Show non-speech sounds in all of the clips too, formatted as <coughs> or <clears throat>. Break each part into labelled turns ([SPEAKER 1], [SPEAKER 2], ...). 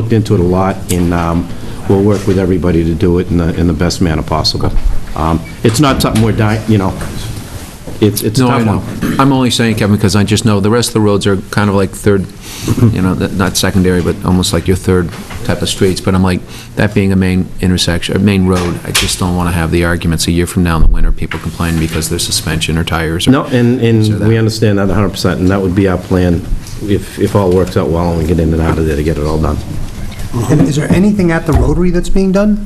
[SPEAKER 1] looked into it a lot, and um, we'll work with everybody to do it in the, in the best manner possible. Um, It's not something we're dying, you know, it's, it's a
[SPEAKER 2] No, I
[SPEAKER 1] tough
[SPEAKER 2] know.
[SPEAKER 1] one.
[SPEAKER 2] I'm only saying, Kevin, because I just know the rest of the roads are kind of like third, you know, th- not secondary, but almost like your third type of streets, but I'm like, that being a main intersection, a main road, I just don't want to have the arguments a year from now in the winter, people complaining because there's suspension or tires. or-
[SPEAKER 1] No, and,
[SPEAKER 2] So
[SPEAKER 1] and
[SPEAKER 2] that-
[SPEAKER 1] we understand that 100%, and that would be our plan if, if all works out well and we get in and out of there to get it all done.
[SPEAKER 3] And is there anything at the Rotary that's being done?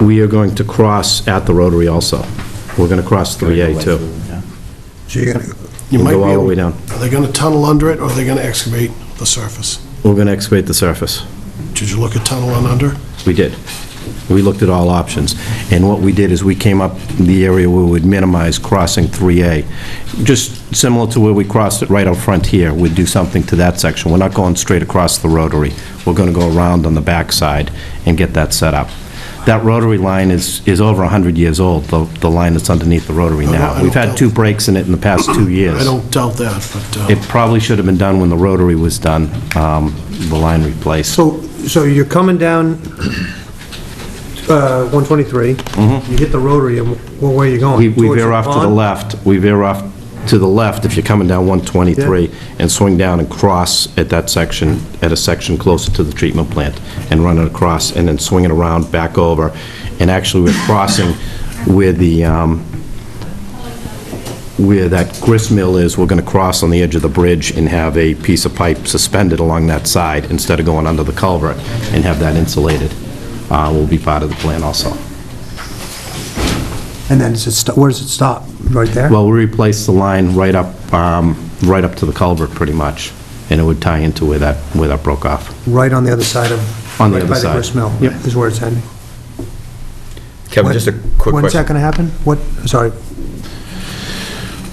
[SPEAKER 1] We are going to cross at the Rotary also. We're going to cross 3A too.
[SPEAKER 3] So you're gonna,
[SPEAKER 1] We'll
[SPEAKER 4] might
[SPEAKER 1] go
[SPEAKER 4] be
[SPEAKER 1] all the
[SPEAKER 4] able-
[SPEAKER 1] way down.
[SPEAKER 4] Are they going to tunnel under it, or are they going to excavate the surface?
[SPEAKER 1] We're going to excavate the surface.
[SPEAKER 4] Did you look at tunneling under?
[SPEAKER 1] We did. We looked at all options. And what we did is we came up the area where we'd minimize crossing 3A. Just similar to where we crossed it right out front here, we'd do something to that section. We're not going straight across the rotary. We're going to go around on the backside and get that set up. That rotary line is, is over 100 years old, the, the line that's underneath the rotary
[SPEAKER 4] no, I
[SPEAKER 1] now.
[SPEAKER 4] don't
[SPEAKER 1] We've had
[SPEAKER 4] doubt-
[SPEAKER 1] two breaks in it in the past
[SPEAKER 4] <clears throat>
[SPEAKER 1] two years.
[SPEAKER 4] I don't doubt that, but,
[SPEAKER 1] It
[SPEAKER 4] uh,
[SPEAKER 1] probably should have been done when the rotary was done, um, the line replaced.
[SPEAKER 3] so, so you're coming down uh, 123. You hit the Rotary, and wh- where are you going?
[SPEAKER 1] Mm-hmm. We we
[SPEAKER 3] Towards
[SPEAKER 1] veer off to the
[SPEAKER 3] pond?
[SPEAKER 1] left, we veer off to the left if you're coming down 123 and swing down and cross at that section, at a section closer to the treatment plant and run it across and then swing it around back over. And actually, we're crossing where the, um, where that grist mill is, we're going to cross on the edge of the bridge and have a piece of pipe suspended along that side instead of going under the culvert and have that insulated. Uh, Will be part of the plan also.
[SPEAKER 3] And then, does it sto- where does it stop? Right there?
[SPEAKER 1] Well, we replaced the line right up, um, right up to the culvert, pretty much, and it would tie into where that, where that broke off.
[SPEAKER 3] Right on the other side of...
[SPEAKER 1] On the
[SPEAKER 3] right
[SPEAKER 1] other
[SPEAKER 3] By
[SPEAKER 1] side.
[SPEAKER 3] the grist mill?
[SPEAKER 1] Yep.
[SPEAKER 3] Is where it's ending.
[SPEAKER 5] Kevin,
[SPEAKER 3] When-
[SPEAKER 5] just a quick
[SPEAKER 3] When's that
[SPEAKER 5] question.
[SPEAKER 3] gonna happen? What, sorry,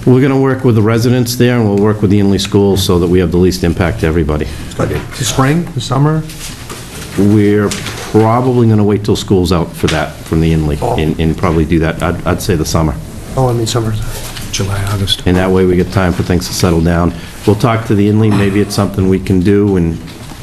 [SPEAKER 1] We're going to work with the residents there, and we'll work with the Inley School so that we have the least impact to everybody.
[SPEAKER 3] the spring, the summer?
[SPEAKER 1] We're probably going to wait till school's out for that, from the Inley, and and probably do that, I'd I'd say the summer.
[SPEAKER 3] Oh, I mean, summer.
[SPEAKER 2] July, August.
[SPEAKER 1] And that way, we get time for things to settle down. We'll talk to the Inley, maybe it's something we can do and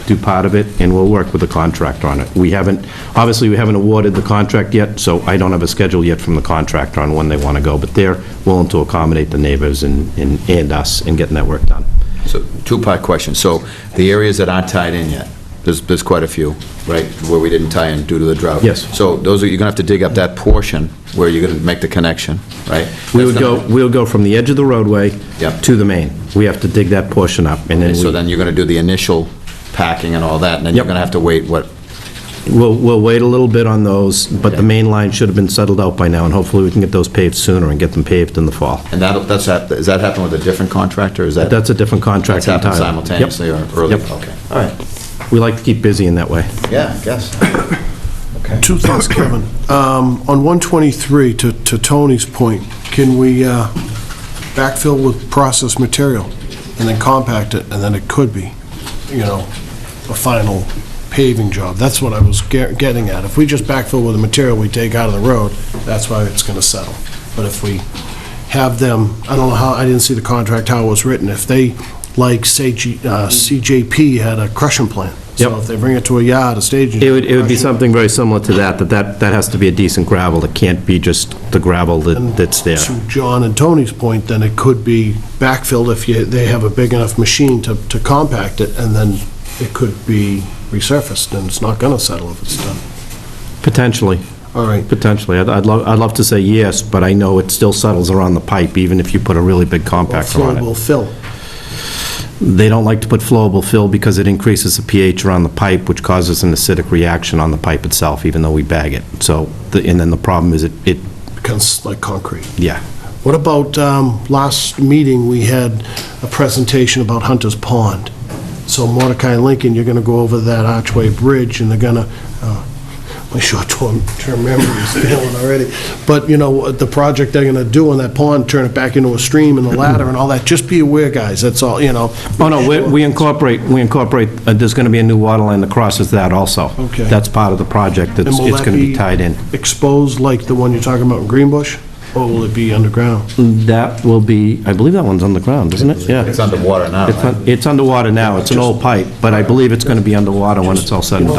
[SPEAKER 1] do part of it, and we'll work with the contractor on it. We haven't, obviously, we haven't awarded the contract yet, so I don't have a schedule yet from the contractor on when they want to go, but they're willing to accommodate the neighbors and, and and us in getting that work done.
[SPEAKER 5] So, two-part question. So, the areas that aren't tied in yet, there's, there's quite a few, right, where we didn't tie in due to the drought?
[SPEAKER 1] Yes.
[SPEAKER 5] So, those are, you're gonna have to dig up that portion where you're gonna make the connection, right?
[SPEAKER 1] We would
[SPEAKER 5] That's
[SPEAKER 1] go,
[SPEAKER 5] gonna-
[SPEAKER 1] we'll go from the edge of the roadway
[SPEAKER 5] Yep.
[SPEAKER 1] to the main. We have to dig that portion up, and
[SPEAKER 5] And so
[SPEAKER 1] then
[SPEAKER 5] then you're gonna do the initial packing and all that, and then you're
[SPEAKER 1] Yep.
[SPEAKER 5] gonna have to wait, what,
[SPEAKER 1] we- we'll, we'll wait a little bit on those, but the
[SPEAKER 5] Okay.
[SPEAKER 1] main line should have been settled out by now, and hopefully, we can get those paved sooner and get them paved in the fall.
[SPEAKER 5] and that, that's, hap- does that happen with a different contractor, is that?
[SPEAKER 1] That's a different
[SPEAKER 5] That's
[SPEAKER 1] contract
[SPEAKER 5] happened
[SPEAKER 1] entirely. Yep.
[SPEAKER 5] simultaneously or early?
[SPEAKER 1] Yep.
[SPEAKER 5] Okay, all right,
[SPEAKER 1] We like to keep busy in that way.
[SPEAKER 5] yeah, I guess.
[SPEAKER 1] <coughs>
[SPEAKER 4] two thoughts, Kevin. Um, On 123, to to Tony's point, can we uh, backfill with processed material and then compact it, and then it could be, you know, a final paving job? That's what I was ge- getting at. If we just backfill with the material we take out of the road, that's why it's going to settle. But if we have them, I don't know how, I didn't see the contract, how it was written, if they, like, say, G- uh, CJP had a crushing plant. So
[SPEAKER 1] Yep.
[SPEAKER 4] if they bring it to a yard, a staging.
[SPEAKER 1] It would, it would be
[SPEAKER 4] crushing-
[SPEAKER 1] something very similar to that, that that, that has to be a decent gravel. It can't be just the gravel that, that's there.
[SPEAKER 4] To John and Tony's point, then it could be backfilled if you, they have a big enough machine to, to compact it, and then it could be resurfaced, and it's not gonna settle if it's done.
[SPEAKER 1] Potentially,
[SPEAKER 4] All right,
[SPEAKER 1] potentially. I'd, I'd love, I'd love to say yes, but I know it still settles around the pipe, even if you put a really big compactor
[SPEAKER 4] flow
[SPEAKER 1] on
[SPEAKER 4] will
[SPEAKER 1] it.
[SPEAKER 4] fill.
[SPEAKER 1] They don't like to put flowable fill because it increases the pH around the pipe, which causes an acidic reaction on the pipe itself, even though we bag it. So, the- and then the problem is it, it,
[SPEAKER 4] becomes like concrete.
[SPEAKER 1] yeah.
[SPEAKER 4] What about, um, last meeting, we had a presentation about Hunter's Pond. So Mordecai Lincoln, you're gonna go over that archway bridge, and they're gonna, uh, my short-term term memory is failing already, but, you know, what the project they're gonna do on that pond, turn it back into a stream and the ladder and all that, just be aware, guys, that's all, you know.
[SPEAKER 1] Oh, no, we- we incorporate, we incorporate, uh, there's going to be a new water line that crosses that also.
[SPEAKER 4] Okay.
[SPEAKER 1] That's part of the project, that's-
[SPEAKER 4] And will
[SPEAKER 1] it's
[SPEAKER 4] that
[SPEAKER 1] going to be tied in.
[SPEAKER 4] Exposed like the one you're talking about in Greenbush? Or will it be underground?
[SPEAKER 1] That will be, I believe that one's underground, isn't it? Yeah.
[SPEAKER 5] It's underwater now,
[SPEAKER 1] It's
[SPEAKER 5] right?
[SPEAKER 1] un- It's underwater now, it's an old pipe, but I believe it's going to be underwater when it's all said and done.